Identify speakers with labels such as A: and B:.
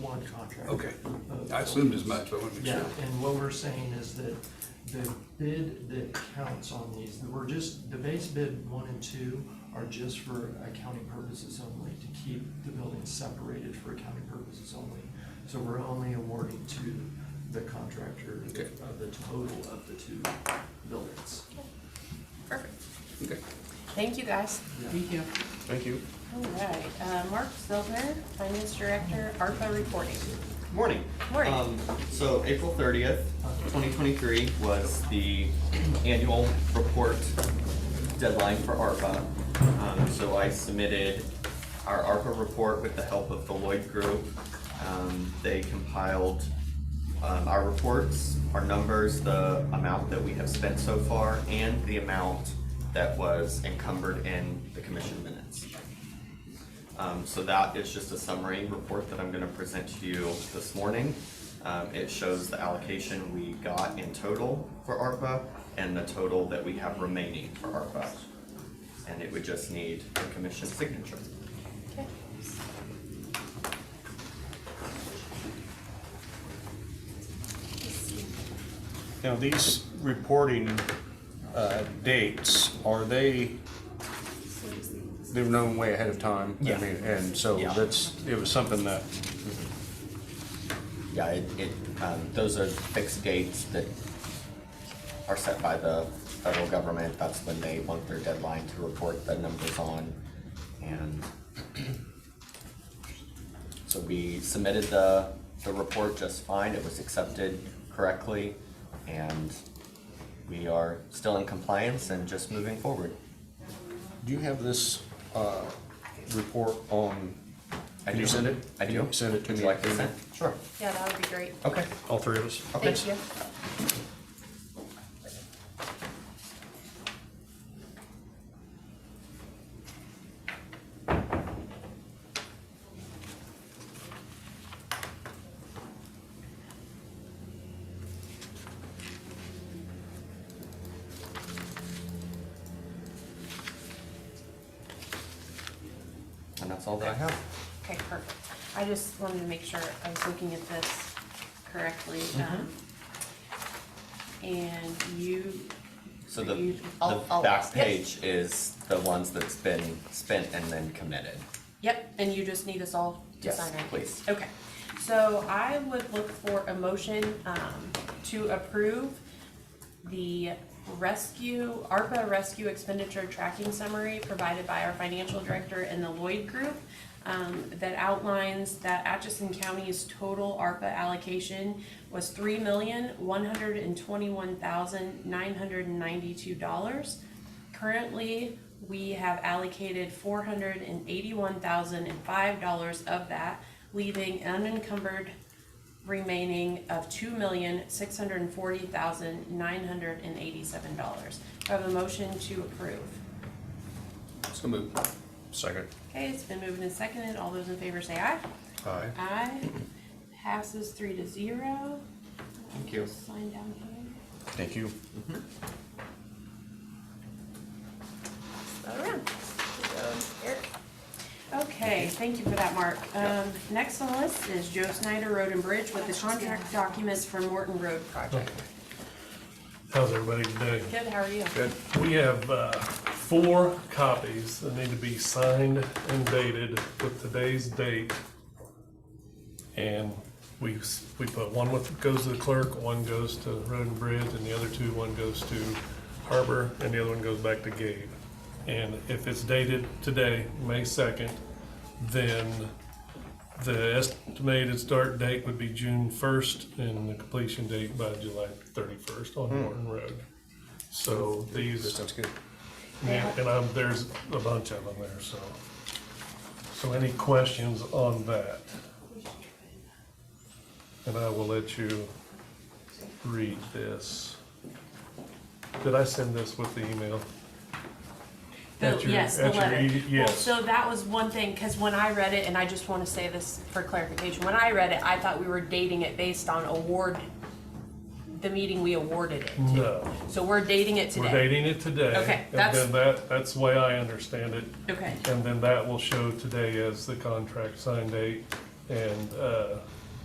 A: on the contract.
B: Okay, I assumed as much, but I want to make
A: Yeah,
B: sure.
A: and what we're saying is that the bid that counts on these, we're just, the base bid one and two are just for accounting purposes only, to keep the buildings separated for accounting purposes only. So we're only awarding to the contractor
B: Okay.
A: of the total of the two buildings.
C: Perfect.
B: Okay.
C: Thank you, guys.
A: Thank you.
D: Thank you.
C: All right, uh, Mark Silver, Finance Director, ARPA reporting.
E: Morning.
C: Morning.
E: Um, So April thirtieth, twenty twenty-three was the annual report deadline for ARPA. Um, So I submitted our ARPA report with the help of the Lloyd Group. Um, They compiled um, our reports, our numbers, the amount that we have spent so far, and the amount that was encumbered in the commission minutes. Um, so that is just a summary report that I'm gonna present to you this morning. Um, it shows the allocation we got in total for ARPA and the total that we have remaining for ARPA. And it would just need the commission's signature.
C: Okay.
D: Now, these reporting uh, dates, are they, they're known way ahead of time? I
E: Yeah.
D: mean, And so
E: Yeah.
D: that's, it was something that,
E: Yeah, it, it, um, those are fixed dates that are set by the federal government. That's when they want their deadline to report the numbers on. And so we submitted the, the report just fine. It was accepted correctly. And we are still in compliance and just moving forward.
D: do you have this uh, report on,
E: I
D: can you
E: do.
D: send it?
E: I
D: Can
E: do.
D: you Send it to
E: Would
D: me.
E: you like to send? Sure.
C: Yeah, that would be great.
E: Okay.
D: All three of us?
E: Oh, Okay.
C: Thank you.
E: And that's all that I have.
C: Okay, perfect. I just wanted to make sure I was looking at this correctly. um,
E: Mm-hmm.
C: And you.
E: So the,
C: you-
E: the
C: I'll- I'll-
E: back
C: yep,
E: page is the ones that's been spent and then committed.
C: Yep, and you just need us all to
E: Yes,
C: sign it.
E: please.
C: Okay, so I would look for a motion um, to approve the rescue, ARPA rescue expenditure tracking summary provided by our financial director and the Lloyd Group um, that outlines that Atchison County's total ARPA allocation was three million, one hundred and twenty-one thousand, nine hundred and ninety-two dollars. Currently, we have allocated four hundred and eighty-one thousand and five dollars of that, leaving unencumbered remaining of two million, six hundred and forty thousand, nine hundred and eighty-seven dollars. Do I have a motion to approve?
B: So move.
D: Second.
C: Okay, it's been moved and seconded. All those in favor say aye.
D: Aye.
C: Aye. Passes three to zero.
E: Thank you.
C: Sign down here.
D: Thank you.
C: Go around. Eric. Okay, thank you for that, Mark. Um, next on the list is Joe Snyder Road and Bridge with the contract documents for Morton Road project.
F: How's everybody today?
C: Good, how are you?
B: Good.
F: We have uh, four copies that need to be signed and dated with today's date. And we, s- we put one with, goes to the clerk, one goes to Road and Bridge, and the other two, one goes to Harbor, and the other one goes back to Gabe. And if it's dated today, May 2nd, then the estimated start date would be June 1st and the completion date by July 31st on Morton Road. So
D: That
F: these,
D: sounds good.
F: and and I'm, there's a bunch of them there, so. So any questions on that? And I will let you read this. Did I send this with the email?
C: The-
F: At your-
C: yes, the
F: at your
C: letter.
F: e-
C: Well,
F: yes.
C: So that was one thing, because when I read it, and I just want to say this for clarification, when I read it, I thought we were dating it based on award, the meeting we awarded it to.
F: No.
C: So we're dating it
F: Mm-hmm. We're
C: today.
F: dating it today.
C: Okay, that's-
F: And then that, that's the way I understand it.
C: Okay,
F: And then that will show today as the contract sign date and uh,